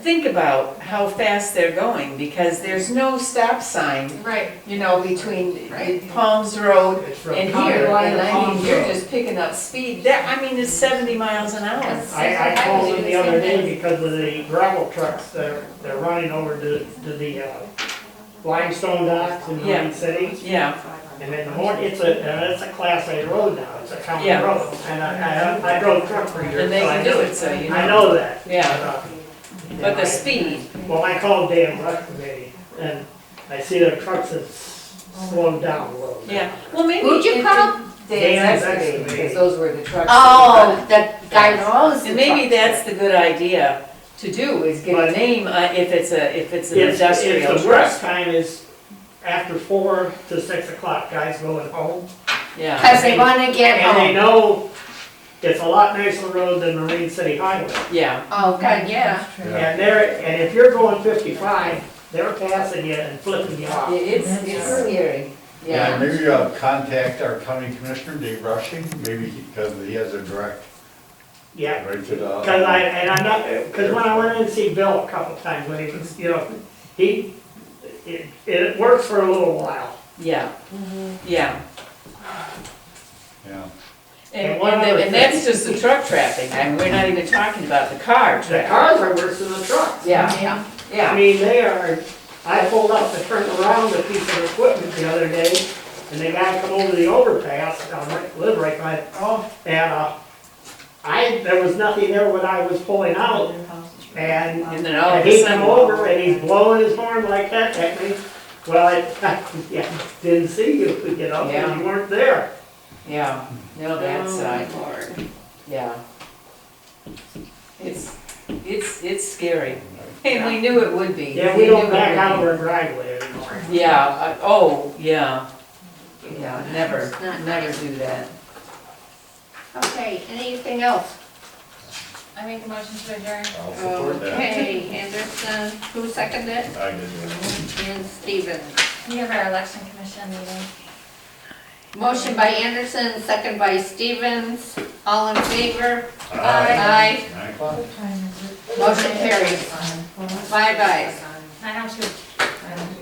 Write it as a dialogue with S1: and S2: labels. S1: think about how fast they're going, because there's no stop sign,
S2: Right.
S1: you know, between
S2: Right.
S1: Palms Road
S3: It's from
S1: and
S3: County
S1: here,
S3: Line
S1: and
S3: to
S1: I mean,
S3: Palms
S1: you're
S3: Road.
S1: just picking up speed, that, I mean, it's seventy miles an hour.
S2: That's-
S3: I, I
S2: I
S3: called
S2: would
S3: them
S2: do
S3: the
S2: the same
S3: other day
S2: thing.
S3: because of the gravel trucks, they're, they're running over to, to the uh, limestone docks in
S1: Yeah.
S3: Marine City.
S1: Yeah,
S3: And then the morning, it's a, and it's a class A road now, it's a county
S1: Yeah.
S3: road. And I, I, I drove truck for years.
S1: and they
S3: so I
S1: can do
S3: know-
S1: it, so you
S3: I
S1: know,
S3: know that.
S1: Yeah.
S3: Uh,
S1: but the speed,
S3: Well, I called Dan Rush Committee and I see their trucks have s- slowed down a little bit.
S1: yeah, well, maybe.
S4: Who'd you
S1: it-
S4: call?
S3: Dan's
S5: Dan's excavating,
S3: excavating.
S5: because those were the trucks.
S4: Oh, that guy knows.
S1: And maybe that's the good idea to do, is get a
S3: But-
S1: name, uh, if it's a, if it's an
S3: It's,
S1: industrial
S3: it's the worst
S1: truck,
S3: time is after four to six o'clock, guys going home.
S1: yeah,
S4: Cause they wanna get
S3: And they
S4: home.
S3: know it's a lot nicer road than Marine City Highway.
S1: yeah,
S4: Oh, God, yeah.
S3: And they're, and if you're going fifty-five, they're passing you and flipping you
S5: It-
S3: off.
S5: It's, it's scary.
S6: Yeah,
S1: yeah,
S6: maybe uh, contact our county commissioner, Dave Rushing, maybe, because he has a direct
S3: Yeah,
S6: right to the.
S3: cause I, and I'm not, cause when I went in to see Bill a couple times, when he was, you know, he, it, it worked for a little while.
S1: yeah, yeah.
S6: Yeah,
S1: And,
S3: And one
S1: and the-
S3: other
S1: and that's just the truck traffic, I mean, we're not even talking about the car
S3: The
S1: traffic.
S3: cars are worse than the trucks.
S1: Yeah,
S3: I
S1: yeah,
S3: mean, they are, I pulled up to turn around a piece of equipment the other day, and they gotta come over the overpass, I right- live right by it. Oh. And, uh, I, there was nothing there when I was pulling out, and
S1: and then all of a
S3: he come over
S1: sudden,
S3: and he's blowing his horn like that at me. Well, I, yeah, didn't see you, you know, 'cause
S1: Yeah.
S3: you weren't there.
S1: yeah, no, that's, uh,
S2: Lord.
S1: yeah. It's, it's, it's scary, and we knew it would be.
S3: Yeah, we
S1: knew
S3: don't
S1: it
S3: back
S1: would
S3: out of
S1: be.
S3: our driveway anymore.
S1: Yeah, uh, oh, yeah, yeah, never, never do that.
S4: Okay, anything else?
S2: I make a motion to adjourn.
S6: I'll support that.
S4: Okay, Anderson, who seconded it?
S6: I did.
S4: And Stevens.
S2: We have our election commission meeting.
S4: Motion by Anderson, second by Stevens, all in favor?
S6: Aye. Nine o'clock?
S4: Motion carries. Five ayes.
S2: I have to.